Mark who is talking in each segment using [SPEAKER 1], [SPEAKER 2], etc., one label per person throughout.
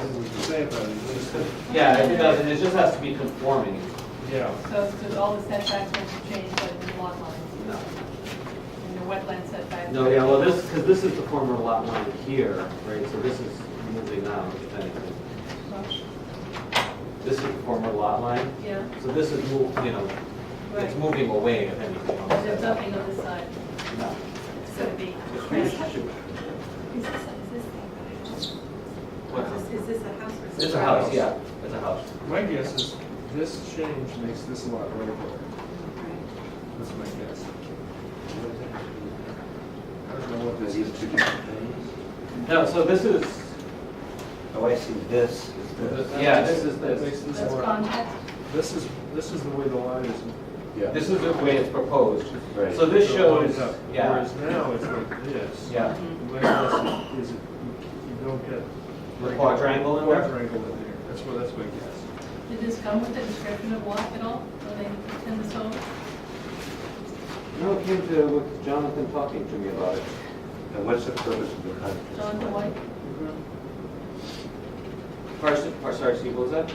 [SPEAKER 1] say about it, you just said,
[SPEAKER 2] Yeah, it doesn't, it just has to be conforming,
[SPEAKER 1] yeah.
[SPEAKER 3] So, so all the setbacks will change, but the lot line,
[SPEAKER 2] no.
[SPEAKER 3] and the wetland setback.
[SPEAKER 2] No, yeah, well, this, because this is the former lot line here, right, so this is moving out, if anything. This is the former lot line,
[SPEAKER 3] Yeah,
[SPEAKER 2] so this is move, you know, it's
[SPEAKER 3] Right.
[SPEAKER 2] moving away, if anything. on the
[SPEAKER 3] there's
[SPEAKER 2] side.
[SPEAKER 3] nothing on this side,
[SPEAKER 2] No.
[SPEAKER 3] it's gonna be.
[SPEAKER 2] It's huge.
[SPEAKER 4] Is this, is
[SPEAKER 2] What's
[SPEAKER 4] this, is this a house or is
[SPEAKER 2] this?
[SPEAKER 4] this?
[SPEAKER 2] It's a house, yeah, it's a house.
[SPEAKER 1] My guess is this change makes this a lot regular. That's my guess. I don't know what this
[SPEAKER 5] These
[SPEAKER 1] is.
[SPEAKER 5] two different things.
[SPEAKER 2] No, so this is,
[SPEAKER 5] Oh, I see, this is this.
[SPEAKER 2] Yeah, this is
[SPEAKER 1] That
[SPEAKER 2] this.
[SPEAKER 1] makes this
[SPEAKER 3] That's
[SPEAKER 1] more-
[SPEAKER 3] contact,
[SPEAKER 1] This is, this is the way the line is.
[SPEAKER 5] Yeah.
[SPEAKER 2] this is the way it's proposed.
[SPEAKER 5] Right.
[SPEAKER 2] So this
[SPEAKER 1] the
[SPEAKER 2] shows,
[SPEAKER 1] lines up.
[SPEAKER 2] yeah,
[SPEAKER 1] Whereas now it's like this.
[SPEAKER 2] yeah,
[SPEAKER 1] My guess is, is it- you you don't get.
[SPEAKER 2] The quadrangle in there?
[SPEAKER 1] Quadrangle in there, that's what, that's my guess.
[SPEAKER 3] did this come with the description of lot at all, when they in this home?
[SPEAKER 2] no, it came to, with Jonathan talking to me about it.
[SPEAKER 5] And what's the purpose of the contract?
[SPEAKER 3] John Dwight,
[SPEAKER 2] Parson, Par- sorry, Steve, what was that?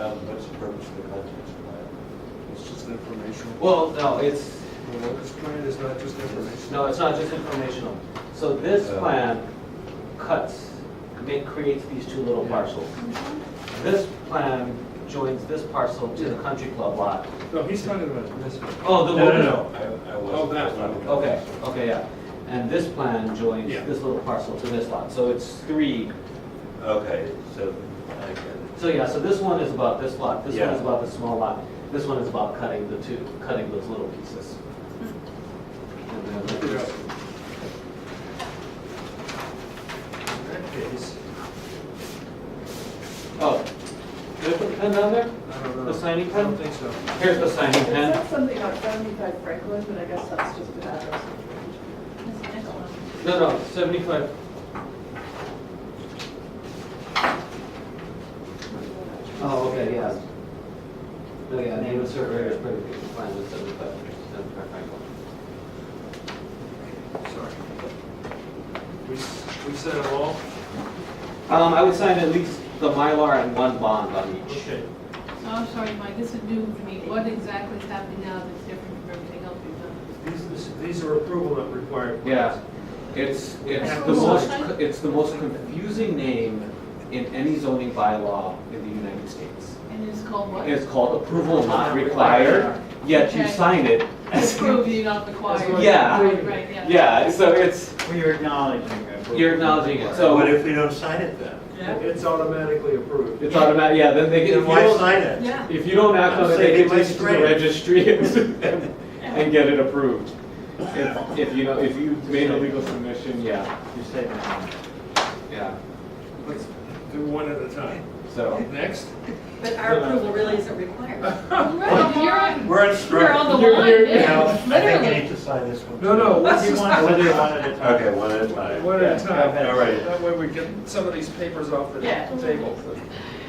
[SPEAKER 5] Um, what's the purpose of the contract? plan?
[SPEAKER 1] It's just informational.
[SPEAKER 2] Well, no, it's,
[SPEAKER 1] Well, This plan is not just information.
[SPEAKER 2] No, it's not just informational. So this
[SPEAKER 5] Oh.
[SPEAKER 2] plan cuts, ma- creates these two little parcels. This plan joins this parcel to the country club lot.
[SPEAKER 1] No, he's talking about this one.
[SPEAKER 2] Oh, the.
[SPEAKER 5] I, I was.
[SPEAKER 1] Oh, that one.
[SPEAKER 2] Okay, okay, yeah. And this plan joins
[SPEAKER 1] Yeah.
[SPEAKER 2] this little parcel to this lot. So it's three.
[SPEAKER 5] Okay, so I get it.
[SPEAKER 2] So yeah, so this one is about this lot, this one
[SPEAKER 5] Yeah.
[SPEAKER 2] is about the small lot, this one is about cutting the two, cutting those little pieces. And then
[SPEAKER 1] In
[SPEAKER 2] this-
[SPEAKER 1] that case,
[SPEAKER 2] Oh, did I put the pen down there?
[SPEAKER 1] I don't know.
[SPEAKER 2] The signing pen?
[SPEAKER 1] I don't think so.
[SPEAKER 2] Here's the signing
[SPEAKER 6] It
[SPEAKER 2] pen.
[SPEAKER 6] said something on seventy-five Franklin, but I guess that's just an address.
[SPEAKER 3] this next one,
[SPEAKER 2] No, no, seventy-five. Oh, okay, yeah. No, yeah, name of surveyor is pretty good, fine with seventy-five, seventy-five Franklin.
[SPEAKER 1] Sorry. We, s- we said it all?
[SPEAKER 2] Um, I would sign at least the Mylar and one bond on each.
[SPEAKER 1] Okay.
[SPEAKER 3] so I'm sorry, Mike, this is new to me, what exactly is happening now that's different from everything else we've done?
[SPEAKER 1] These, this- these are approval not required.
[SPEAKER 2] Yeah, it's, it's
[SPEAKER 3] Have
[SPEAKER 2] the
[SPEAKER 3] the
[SPEAKER 2] most,
[SPEAKER 3] sign?
[SPEAKER 2] it's the most confusing name in any zoning bylaw in the United States.
[SPEAKER 3] And it's called what?
[SPEAKER 2] It's called approval not required, yet you
[SPEAKER 3] Okay.
[SPEAKER 2] sign it as.
[SPEAKER 3] Approved, you're not required.
[SPEAKER 2] Yeah.
[SPEAKER 3] Right, right, yeah.
[SPEAKER 2] Yeah, so it's,
[SPEAKER 7] Well, you're acknowledging it.
[SPEAKER 2] you're acknowledging it,
[SPEAKER 5] So what
[SPEAKER 2] so
[SPEAKER 5] if we don't sign it then?
[SPEAKER 1] It's automatically approved.
[SPEAKER 2] it's automatic, yeah, then they get, if
[SPEAKER 5] Then
[SPEAKER 2] you
[SPEAKER 5] why
[SPEAKER 2] don't,
[SPEAKER 5] sign it?
[SPEAKER 3] Yeah.
[SPEAKER 2] if you don't act on it, they
[SPEAKER 5] Save
[SPEAKER 2] get
[SPEAKER 5] my
[SPEAKER 2] this to the
[SPEAKER 5] strength.
[SPEAKER 2] registry and and get it approved. If, if you know, if you made a legal submission, yeah,
[SPEAKER 7] You're saving money.
[SPEAKER 2] yeah,
[SPEAKER 1] Let's do one at a time.
[SPEAKER 2] so.
[SPEAKER 1] Next?
[SPEAKER 4] But our approval really isn't required.
[SPEAKER 3] Right, you're on,
[SPEAKER 5] We're
[SPEAKER 3] you're
[SPEAKER 5] on
[SPEAKER 3] on
[SPEAKER 5] strike.
[SPEAKER 3] the
[SPEAKER 2] You're-
[SPEAKER 3] line,
[SPEAKER 2] you're-
[SPEAKER 5] You know, I
[SPEAKER 3] yeah,
[SPEAKER 5] think I need
[SPEAKER 3] literally.
[SPEAKER 5] to sign this one.
[SPEAKER 1] No, no,
[SPEAKER 7] What
[SPEAKER 1] let's
[SPEAKER 7] do you
[SPEAKER 1] just,
[SPEAKER 7] want, what do you want at a time?
[SPEAKER 5] Okay, one at a time.
[SPEAKER 1] one at a
[SPEAKER 7] Yeah,
[SPEAKER 1] time.
[SPEAKER 7] go ahead.
[SPEAKER 5] All right.
[SPEAKER 1] That way we get some of these papers off the
[SPEAKER 4] Yeah.
[SPEAKER 1] table.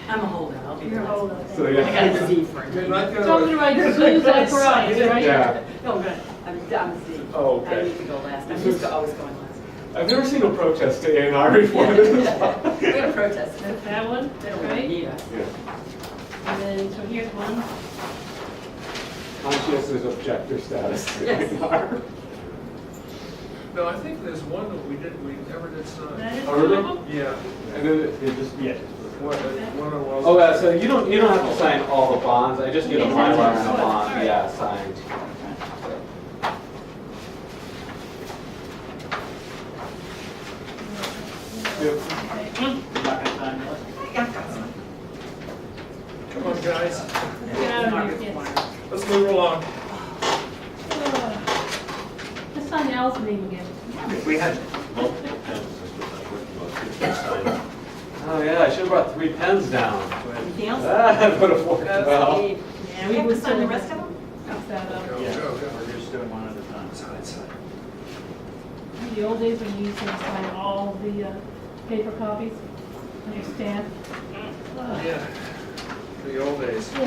[SPEAKER 4] I'm a holdout.
[SPEAKER 3] You're a holdout.
[SPEAKER 2] So,
[SPEAKER 4] I got
[SPEAKER 2] yeah.
[SPEAKER 4] a Z for it.
[SPEAKER 1] You're not gonna-
[SPEAKER 3] Something like this, it's like right, right?
[SPEAKER 2] Yeah.
[SPEAKER 4] No, I'm good. I'm, I'm a Z.
[SPEAKER 2] Oh, okay.
[SPEAKER 4] I need to go last. I'm used to always going last.
[SPEAKER 2] I've never seen a protest to A and R before.
[SPEAKER 4] We had a protest.
[SPEAKER 3] That one,
[SPEAKER 4] They don't really
[SPEAKER 3] right?
[SPEAKER 4] need us.
[SPEAKER 3] And then, so here's one.
[SPEAKER 2] Conscientious objector status to
[SPEAKER 4] Yes.
[SPEAKER 2] A&R.
[SPEAKER 1] No, I think there's one that we did, we never did sign.
[SPEAKER 3] That is
[SPEAKER 2] Oh, really?
[SPEAKER 3] doable?
[SPEAKER 1] Yeah.
[SPEAKER 2] And then it- it just,
[SPEAKER 7] Yeah.
[SPEAKER 1] One, one of those.
[SPEAKER 2] Oh, uh, so you don't, you don't have to sign all the bonds, I just get a
[SPEAKER 3] Okay,
[SPEAKER 2] Mylar
[SPEAKER 3] that's
[SPEAKER 2] and a
[SPEAKER 3] what- all
[SPEAKER 2] bond,
[SPEAKER 3] right.
[SPEAKER 2] yeah, signed.
[SPEAKER 7] You're not gonna sign it?
[SPEAKER 1] Come on, guys,
[SPEAKER 3] Get out of here, kids.
[SPEAKER 4] Required.
[SPEAKER 1] let's move along.
[SPEAKER 3] Let's sign Al's name again.
[SPEAKER 5] If we had multiple pens, this would not work. Most people sign it.
[SPEAKER 2] Oh, yeah, I should've brought three pens down.
[SPEAKER 4] Anything else?
[SPEAKER 2] That would've worked well.
[SPEAKER 4] Okay. And we have to sign the rest of them?
[SPEAKER 3] Fix that up.
[SPEAKER 1] Go,
[SPEAKER 7] Yeah,
[SPEAKER 1] go, go.
[SPEAKER 7] we're just doing one at a time.
[SPEAKER 1] Sign, sign.
[SPEAKER 3] The old days when you used to sign all the uh, paper copies, understand?
[SPEAKER 1] Yeah, the old days.